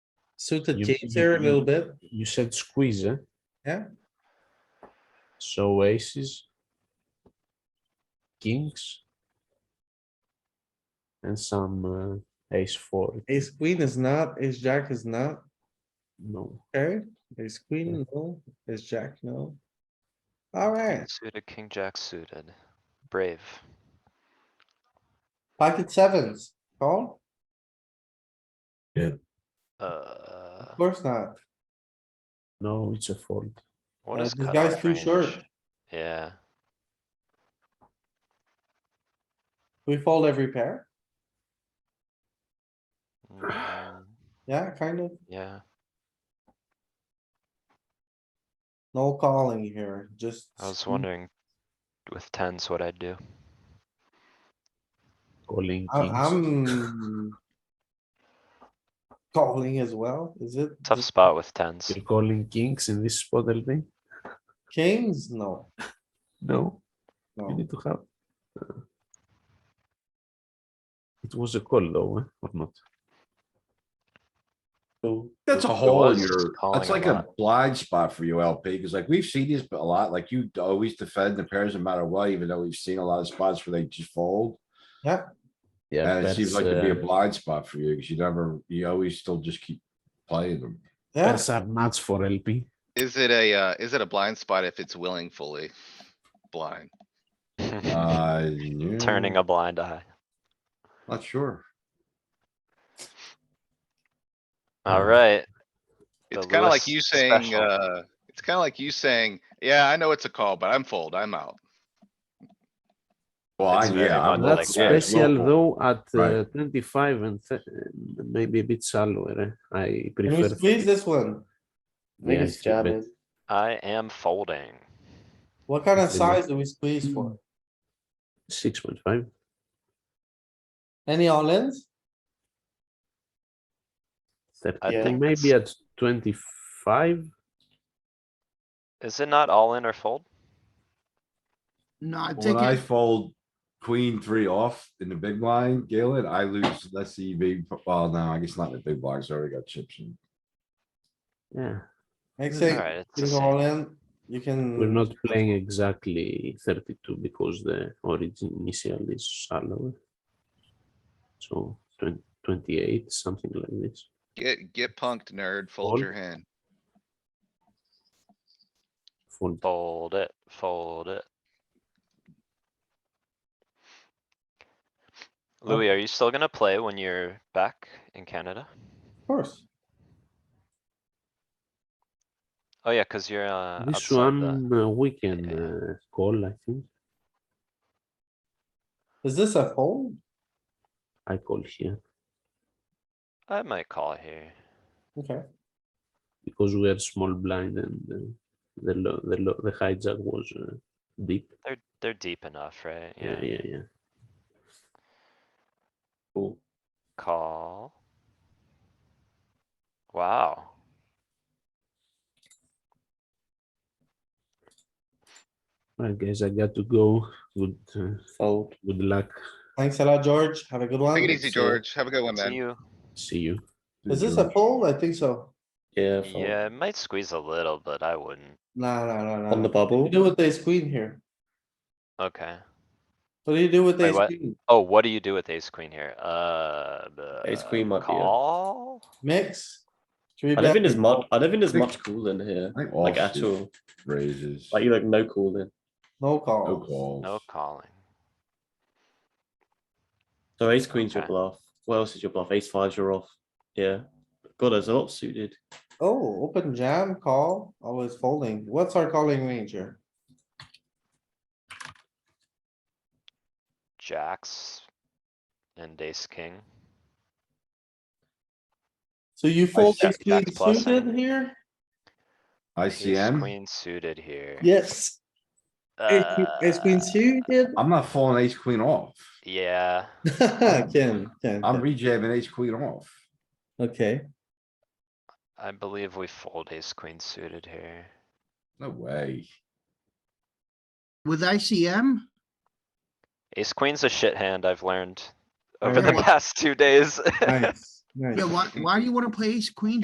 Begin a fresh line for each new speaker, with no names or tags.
Suited
You-
kings here a
you-
little bit.
You said squeeze, eh?
Yeah.
So aces. Kings. And some uh, ace four,
Ace queen is not, ace jack is not,
no,
okay? Ace queen, no, ace jack, no. Alright,
Suited, king jack suited. Brave.
pocket sevens, call?
Uh,
Of course not.
no, it's a fold.
what
Uh,
is
this guy's
cutoff
too short.
range? Yeah,
We fold every pair.
mm,
Yeah, kind of.
yeah,
No calling here, just.
I was
squeeze.
wondering with tens what I'd do.
Calling
I-
kings.
I'm. Calling as well, is it?
Tough spot with tens.
You're calling kings in this spot, LB?
Kings? No,
No, you
no.
need to have. uh, It was a call though, eh, or not?
So,
That's a
It
hole in
was
your,
calling
that's
a
like a
lot.
blind spot for you LP, because like we've seen these a lot, like you always defend the pairs no matter what, even though we've seen a lot of spots where they just fold.
Yeah,
And it
that's,
seems like it'd be a
uh,
blind spot for you, because you never, you always still just keep playing them.
Yeah,
that's are nuts for LP.
Is it a, uh, is it a blind spot if it's willing fully blind?
Uh.
Turning
yeah,
a blind eye.
Not sure.
Alright,
It's
The
kinda like
Lewis
you saying,
special.
uh, it's kinda like you saying, yeah, I know it's a call, but I'm fold, I'm out.
Well, I-
It's very
yeah, I'm
much
not
That's
like that.
serious,
special
local.
though at
Right.
uh, twenty-five and th- uh, maybe a bit shallower. eh? I
can we
prefer.
squeeze this one?
Yeah,
Biggest
it's a
job
bit-
is,
I am folding.
what kind of
It's a bit-
size do we squeeze for?
Six point five.
Any all-ins?
I
Yeah.
Thirty,
think
maybe at twenty-five.
Is it not all in or fold?
No, I
When
think
I
it,
fold queen three off in the big blind, Galen, I lose, let's see, big, well, no, I guess not in the big blinds, I already got chips in.
Yeah,
Makes
Alright,
it,
it's the
you go
same.
all in, you can.
we're not playing exactly thirty-two because the origin initial is shallower. So 20 28, something like this.
Get, get punked, nerd, fold
Fold.
your hand.
Fold.
Fold it, fold it.
Oh.
Louis, are you still gonna play when you're back in Canada?
Of course,
Oh yeah, cuz you're uh.
This
outside the-
one uh, we can
yeah.
uh, call, I think.
is this a fold?
I call here
I might call here.
Okay,
because we are small blind and uh, the low, the low, the hijack was uh, deep.
They're, they're deep enough, right?
Yeah, yeah, yeah.
Cool.
Call. Wow.
I guess I got to go. Good, uh,
fold.
good luck.
Thanks a lot, George. Have a good one.
Take it easy,
So,
George. Have a good one,
See
man.
you.
See you.
Is this a fold? I think so.
Yeah, fold.
Yeah, it might squeeze a little, but I wouldn't.
No, no, no, no.
on the
no. What
bubble.
do you do with ace queen here?
Okay.
What do you do with
Wait,
ace
what?
queen?
Oh, what do you do with ace queen here? Uh.
Ace
the
queen might be a-
Call?
Mix? Three
I don't think
bet?
there's much. I don't think there's
Think-
much cooling here.
I think
Like
offsuit
at all.
Raises.
Like like no cooling.
No
No
call.
calls.
No calling.
So ace queen's your
Okay.
bluff. What else is your bluff? Ace five's your off. Yeah. God, there's a lot suited.
Oh, open jam, call, always folding. What's our calling range here?
Jacks. And ace king.
So you fold
see
ace queen
Jack's plus
suited
and-
here?
Ace
ICM?
Queen suited here.
Yes. Ace queen- ace queen
Uh,
suited?
I'm not falling ace queen off.
Yeah,
Ken, Ken,
I'm
Ken.
rejamming ace queen off.
okay.
I believe we fold ace queen suited here.
No way.
with ICM,
Ace queen's a shit hand, I've learned
I
over the
know.
past two days.
Nice, nice.
yeah, why, why do you wanna play ace queen